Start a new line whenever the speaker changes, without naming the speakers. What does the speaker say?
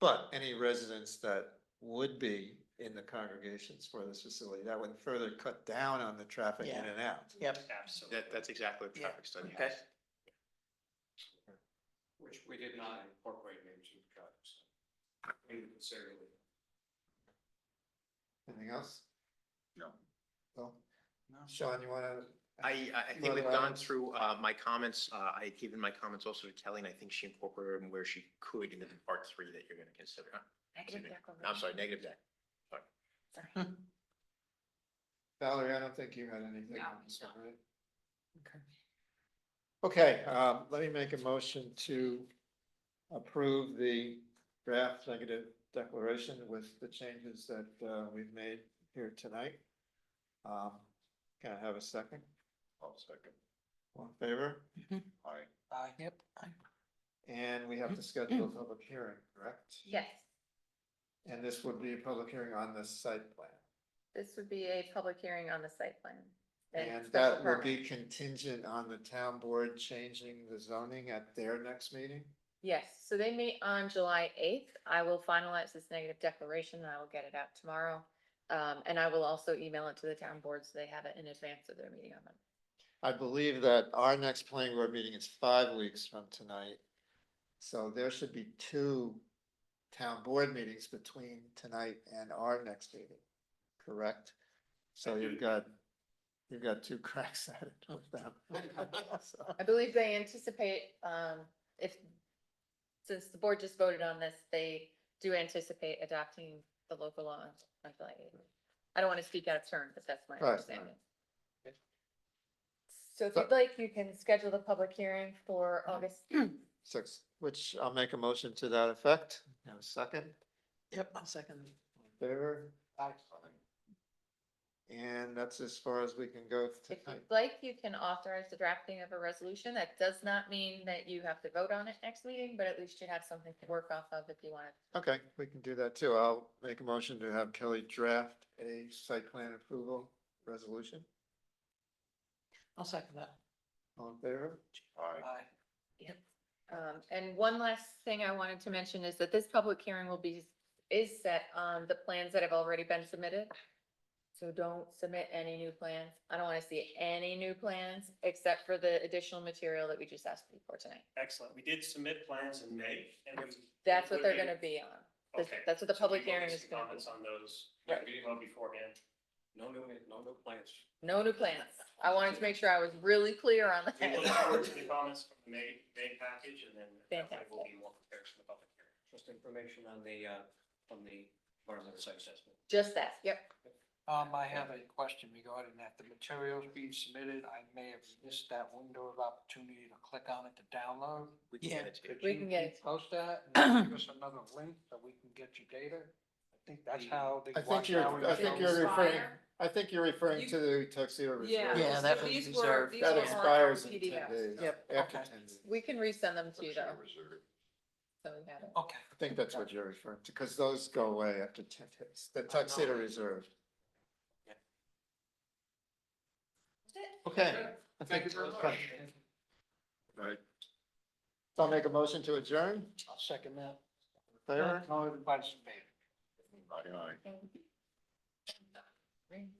But any residents that would be in the congregations for this facility, that would further cut down on the traffic in
Yeah.
and out.
Yep,
Absolutely.
That, that's exactly what the
Yeah.
traffic study
Okay.
has.
Which we did not incorporate into the project. so We didn't consider it.
Anything else?
No.
No? Sean, you wanna?
I, I- I
Not
think we've gone
allowed.
through uh, my comments. Uh, I had given my comments also to Kelly, and I think she incorporated them where she could into the part three that you're going to consider. Uh,
Negative
Excuse me.
declaration.
I'm sorry, negative deck.
Valerie, I don't think you had anything.
No,
on this
no.
one, right? Okay, um, let me make a motion to approve the draft negative declaration with the changes that, uh, we've made here tonight. Um, can I have a second?
Oh, second.
All in favor?
All right.
yep.
And we have to schedule
Mm-hmm.
a public hearing, correct?
Yes,
And this would be a public hearing on the site plan.
this would be a public hearing on the site plan.
And
special
that will
permit.
be contingent on the town board changing the zoning at their next meeting?
Yes, so they meet on July eighth. I will finalize this negative declaration and I will get it out tomorrow. Um, and I will also email it to the town board so they have it in advance of their meeting on Monday.
I believe that our next planning board meeting is five weeks from tonight. So there should be two town board meetings between tonight and our next meeting, correct? So you've got, you've got two cracks at it with them. So-
I believe they anticipate, um, if, since the board just voted on this, they do anticipate adopting the local law on- on July eighth. I don't want to speak out of turn, but that's my
Right.
understanding. So if you'd like, you can schedule the public hearing for August.
Six, which I'll make a motion to that effect. Have a second,
Yep, I'll second.
favor?
Aye.
And that's as far as we can go
If
tonight.
you'd like, you can authorize the drafting of a resolution. That does not mean that you have to vote on it next meeting, but at least you have something to work off of if you want.
Okay, we can do that too. I'll make a motion to have Kelly draft a site plan approval resolution.
I'll second that.
All in favor?
All right.
Aye.
Yep. Um, and one last thing I wanted to mention is that this public hearing will be, is set on the plans that have already been submitted. So don't submit any new plans. I don't wanna see any new plans except for the additional material that we just asked you for tonight.
Excellent. We did submit plans in May and we.
That's what they're gonna be on. That's-
Okay.
That's what the
So we
public
will get
hearing
some
is gonna be.
Comments on those.
Right.
Well beforehand. No new, no new plans.
No new plans. I wanted to make sure I was really clear on
We look forward
that.
to the comments from the May, May package and then that way we'll be more prepared for the public hearing.
Just information on the, uh, on the environmental site assessment.
Just that, yep.
Um, I have a question regarding that, the materials being submitted, I may have missed that window of opportunity to click on it to download.
We can
Yeah.
get it to you.
Could
We
you
can get it.
Post that, and give us another link so we can get your data, I think that's how the.
I think you're, I think you're referring, I think you're referring to the tuxedo reserve.
Yeah, that was
these were-
reserved.
these
That
were on our
expires in ten
PDF.
days.
Yep.
After
Okay.
ten days.
We can resend them to you though. So we have it.
Okay,
I think that's what you're referring to, because those go away after ten days. The tuxedo reserve. Okay. I think it's Right. So I'll make a motion to adjourn.
I'll second that.
Favor?
All in favor?
Right.